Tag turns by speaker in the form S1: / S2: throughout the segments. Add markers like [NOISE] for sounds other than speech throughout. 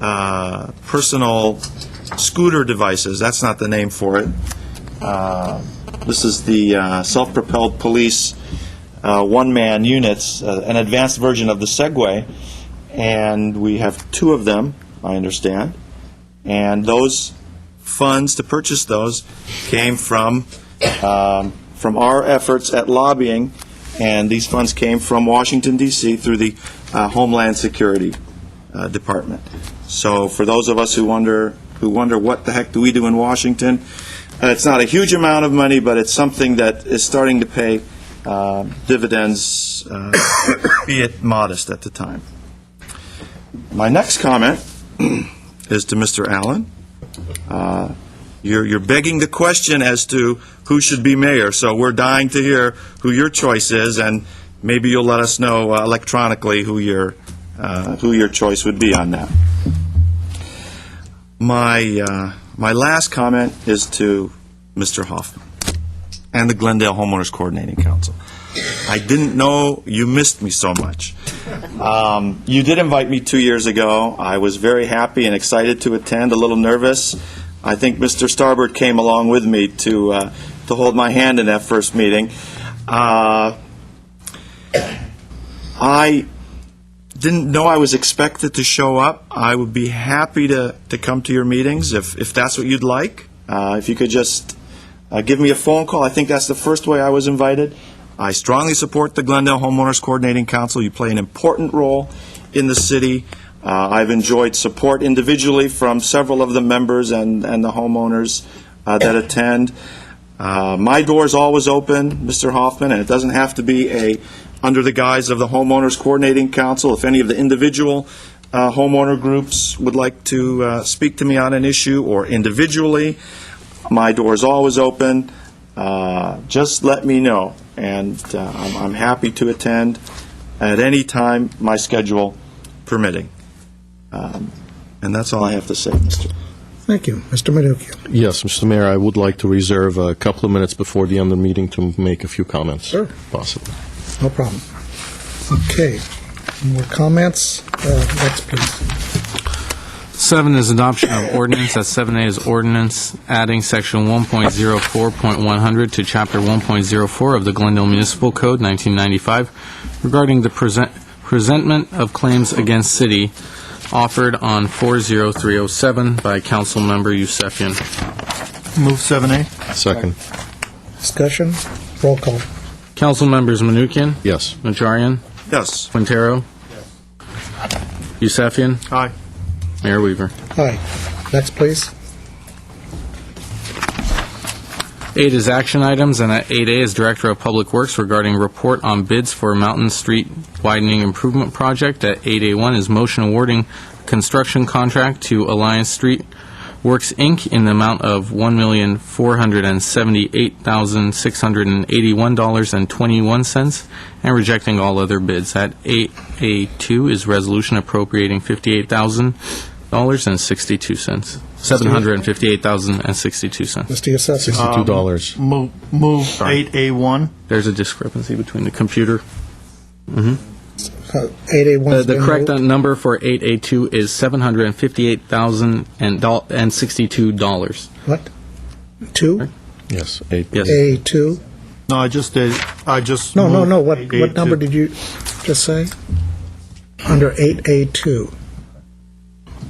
S1: uh, personal scooter devices, that's not the name for it. Uh, This is the uh, self-propelled police uh, one-man units, uh, an advanced version of the Segway, and we have two of them, I understand. And those funds to purchase those came from, um, from our efforts at lobbying, and these funds came from Washington DC through the uh, Homeland Security uh, Department. So for those of us who wonder, who wonder what the heck do we do in Washington, uh, it's not a huge amount of money, but it's something that is starting to pay uh, dividends, uh, [COUGHS] be it modest at the time. My next comment [CLEARS THROAT] is to Mr. Allen. Uh, You're, you're begging the question as to who should be mayor, so we're dying to hear who your choice is, and maybe you'll let us know uh, electronically who your, uh, who your choice would be on that. My, uh, my last comment is to Mr. Hoffman and the Glendale Homeowners Coordinating Council. I didn't know you missed me so much. Um, you did invite me two years ago. I was very happy and excited to attend, a little nervous. I think Mr. Starbird came along with me to, uh, to hold my hand in that first meeting. Uh, I didn't know I was expected to show up. I would be happy to, to come to your meetings if, if that's what you'd like. Uh, if you could just uh, give me a phone call, I think that's the first way I was invited. I strongly support the Glendale Homeowners Coordinating Council. You play an important role in the city. Uh, I've enjoyed support individually from several of the members and, and the homeowners uh, that attend. Uh, My door's always open, Mr. Hoffman, and it doesn't have to be a, under the guise of the Homeowners Coordinating Council. If any of the individual uh, homeowner groups would like to uh, speak to me on an issue or individually, my door is always open. Uh, Just let me know, and uh, I'm I'm happy to attend at any time my schedule permitting. Um, And that's all I have to say, Mr.
S2: Thank you, Mr. Menucha.
S3: Yes, Mr. Mayor, I would like to reserve a couple of minutes before the end of the meeting to make a few comments.
S2: Sure.
S3: Possible.
S2: No problem. Okay, more comments? Uh, Next, please.
S4: Seven is adoption of ordinance. That's seven A is ordinance adding section 1.04.100 to chapter 1.04 of the Glendale Municipal Code 1995 regarding the present, presentment of claims against city offered on 40307 by Councilmember Yusefian.
S1: Move 7A.
S3: Second.
S2: Discussion? Roll call.
S4: Councilmembers Menuchyan,
S3: Yes.
S4: Najarian,
S1: Yes.
S4: Quintero, Yusefian,
S1: Aye.
S4: Mayor Weaver.
S2: Aye. Next, please.
S4: Eight is action items, and at 8A is Director of Public Works regarding report on bids for Mountain Street Widening Improvement Project. At 8A1 is motion awarding construction contract to Alliance Street Works, Inc. in the amount of $1,478,681.21 and rejecting all other bids. At 8A2 is resolution appropriating $58,000.62. $758,062.
S2: Mr.
S4: Uh,
S2: Yusefian.
S3: Two dollars.
S5: Move, move 8A1.
S4: There's a discrepancy between the computer.
S2: Uh,
S4: Uh,
S2: Eight A one.
S4: The the correct number for 8A2 is $758,062.
S2: What? Two?
S3: Yes. Eight.
S4: Yes.
S2: A two?
S5: No, I just did, I just.
S2: No, no,
S5: moved
S2: no, what, what
S5: 8A2.
S2: number did you just say? Under eight A two.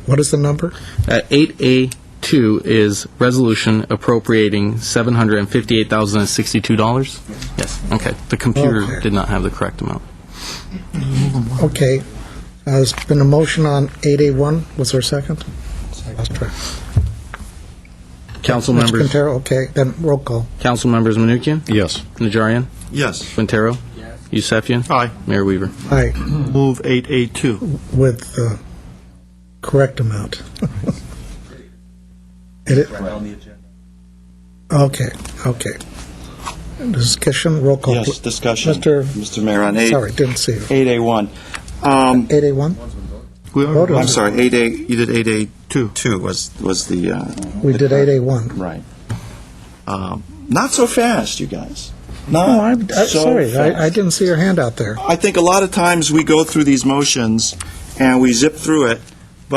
S2: What is the number?
S4: At 8A2 is resolution appropriating $758,062? Yes, okay. The computer
S2: Okay.
S4: did not have the correct amount.
S2: Okay. Uh, There's been a motion on eight A one. Was there a second? Lost track.
S4: Council
S2: Mr.
S4: members,
S2: Quintero, okay, then roll call.
S4: Council members Menuchyan,
S3: Yes.
S4: Najarian,
S1: Yes.
S4: Quintero, Yusefian,
S5: Aye,
S4: Mayor Weaver.
S2: Aye.
S5: move 8A2.
S2: with the correct amount. It i- Okay, okay. Discussion, roll call.
S1: Yes,
S2: pl-
S1: discussion.
S2: Mr.
S1: Mr. Mayor, on 8.
S2: Oh, Sorry, didn't see you.
S1: 8A1. Um,
S2: 8A1?
S5: We
S2: Vote
S5: are
S2: on
S1: I'm
S2: it.
S1: sorry, 8A, you did 8A2. Two was, was the. uh,
S2: We did
S1: the-
S2: 8A1.
S1: Right. Um, Not so fast, you guys. Not
S2: Oh, I'm I'm
S1: so
S2: sorry, I I
S1: fast.
S2: didn't see your hand out there.
S1: I think a lot of times we go through these motions and we zip through it,